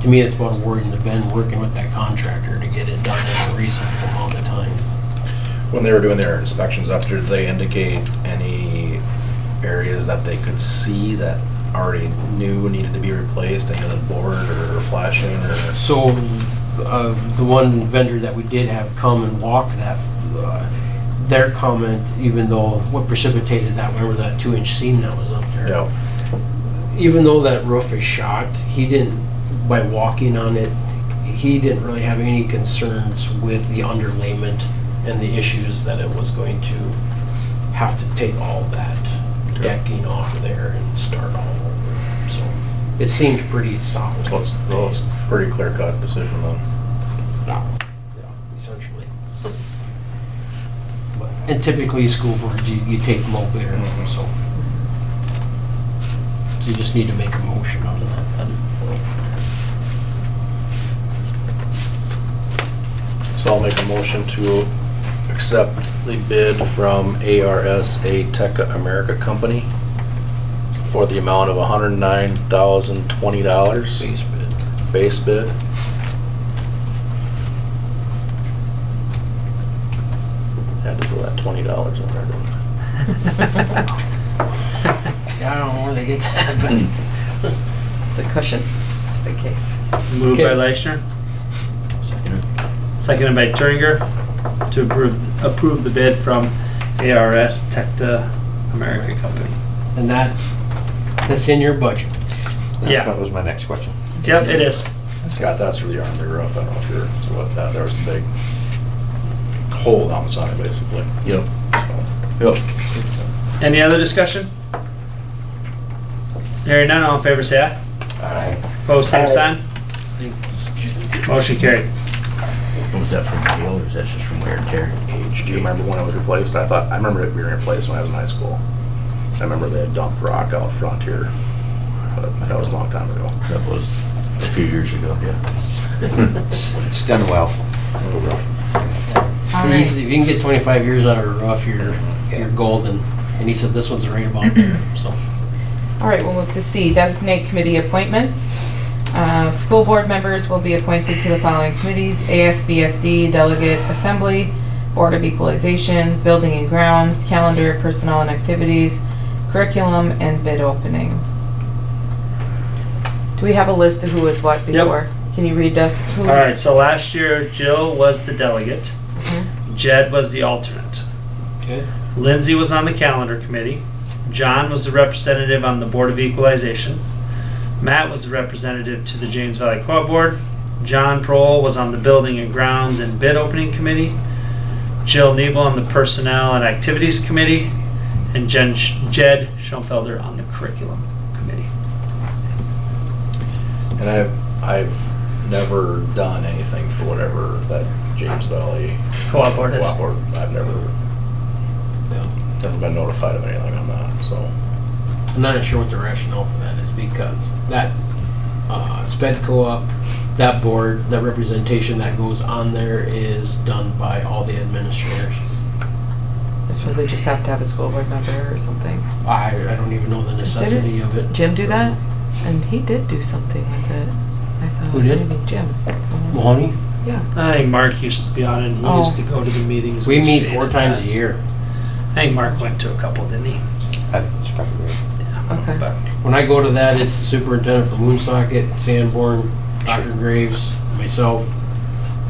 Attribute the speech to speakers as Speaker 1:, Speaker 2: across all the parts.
Speaker 1: to me, that's what worrying the Ben working with that contractor to get it done in a reasonable amount of time.
Speaker 2: When they were doing their inspections up there, did they indicate any areas that they could see that already knew needed to be replaced, any of the board or flashing or?
Speaker 1: So, uh, the one vendor that we did have come and walk that, uh, their comment, even though what precipitated that, remember that two-inch seam that was up there?
Speaker 2: Yeah,
Speaker 1: even though that roof is shot, he didn't, by walking on it, he didn't really have any concerns with the underlayment and the issues that it was going to have to take all that decking off of there and start all over. So it seemed pretty solid.
Speaker 2: so it's, well, it's pretty clear cut decision then.
Speaker 1: Yeah, Essentially. But- And typically, school boards, you, you take low bidder, so.
Speaker 2: Mm-hmm.
Speaker 1: So you just need to make a motion on that then.
Speaker 2: So I'll make a motion to accept the bid from ARSA Tech America Company for the amount of hundred and nine thousand twenty dollars
Speaker 1: Base bid.
Speaker 2: base bid. Had to throw that twenty dollars in there. didn't I?
Speaker 1: Yeah, I don't know where they get that, but.
Speaker 3: Hmm. It's a cushion, just in case.
Speaker 4: Moved by
Speaker 1: Okay.
Speaker 4: Leichner, seconded by Turner to approve, approve the bid from ARS Tecta America Company.
Speaker 1: And that, that's in your budget.
Speaker 4: Yeah.
Speaker 5: That was my next question.
Speaker 4: Yep, it is.
Speaker 2: Scott, that's really on the roof. I don't know if you're, what that, there was a big hole down the side basically.
Speaker 5: Yep. Yep.
Speaker 4: Any other discussion? Hearing none, all in favor say aye. Opposed, same sign.
Speaker 1: I think it's
Speaker 4: Motion carried.
Speaker 5: Was that from Gail or is that just from wear and tear?
Speaker 2: Age, do you remember when it was replaced? I thought, I remember it being replaced when I was in high school. I remember they had dumped rock out front here. but That was a long time ago.
Speaker 5: That was a few years ago, yeah. It's done well.
Speaker 3: All
Speaker 1: He's- If
Speaker 3: right,
Speaker 1: you can get twenty-five years out of a rough, you're, you're golden. And he said this one's right about there, so.
Speaker 3: all right, we'll look to see, designate committee appointments. Uh, School board members will be appointed to the following committees, ASBSD, Delegate Assembly, Board of Equalization, Building and Grounds, Calendar, Personnel and Activities, Curriculum, and Bid Opening. Do we have a list of who was what before? Can you read us who's?
Speaker 4: All right, so last year Jill was the delegate. Jed was the alternate.
Speaker 1: Okay.
Speaker 4: Lindsay was on the calendar committee. John was the representative on the Board of Equalization. Matt was the representative to the James Valley Co-op Board. John Prohl was on the Building and Grounds and Bid Opening Committee. Jill Nebel on the Personnel and Activities Committee. And Jen, Jed Schoenfelder on the Curriculum Committee.
Speaker 2: And I've, I've never done anything for whatever that James Valley
Speaker 4: Co-op Board is.
Speaker 2: Wow, or I've never, never been notified of anything on that, so.
Speaker 1: I'm not sure what the rationale for that is because that, uh, sped co-op, that board, that representation that goes on there is done by all the administrators.
Speaker 3: I suppose they just have to have a school board member or something.
Speaker 1: I, I don't even know the necessity of it.
Speaker 3: Jim do that? And he did do something with it. I thought
Speaker 1: Who did?
Speaker 3: maybe Jim.
Speaker 1: Mahoney,
Speaker 4: I think Mark used to be on it. and He
Speaker 3: Oh.
Speaker 4: used to go to the meetings.
Speaker 1: we
Speaker 4: with
Speaker 1: meet
Speaker 4: Shane
Speaker 1: four
Speaker 4: at
Speaker 1: times a year.
Speaker 4: I think Mark went to a couple, didn't he?
Speaker 5: I think it's probably right.
Speaker 3: Okay.
Speaker 4: But
Speaker 1: When I go to that, it's superintendent for Moonsocket, Sanborn, Dr. Graves, myself,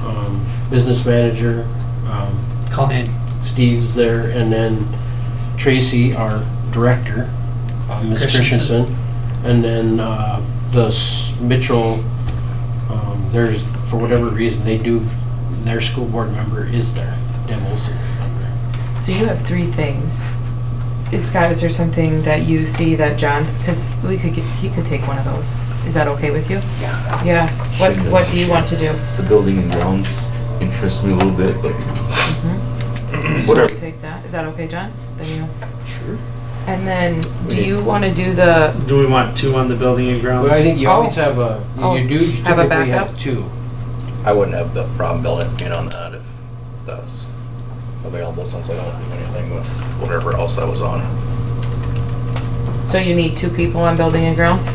Speaker 1: um, business manager, um,
Speaker 4: Call in.
Speaker 1: Steve's there, and then Tracy, our director, uh, Ms.
Speaker 4: Christensen.
Speaker 1: Christensen. And then uh, the s- Mitchell, um, there's, for whatever reason, they do, their school board member is there, Deb Olson.
Speaker 3: So you have three things. Is Scott, is there something that you see that John, because we could get, he could take one of those. Is that okay with you?
Speaker 5: Yeah.
Speaker 3: Yeah. What,
Speaker 5: Sure.
Speaker 3: what do you want to do?
Speaker 5: The building and grounds interests me a little bit, but
Speaker 3: We'll
Speaker 5: whatever.
Speaker 3: Mm-hmm. Take that. Is that okay, John? Then you.
Speaker 5: Sure.
Speaker 3: And then, do
Speaker 5: We-
Speaker 3: you want to do the,
Speaker 4: Do we want two on the building and grounds?
Speaker 1: Well, I think you always
Speaker 3: Oh.
Speaker 1: have a,
Speaker 3: Oh.
Speaker 1: you do you
Speaker 3: Have a
Speaker 1: typically have
Speaker 3: backup?
Speaker 1: two.
Speaker 2: I wouldn't have the problem building, being on that if that's available, since I don't do anything with whatever else I was on.
Speaker 3: so you need two people on building and grounds?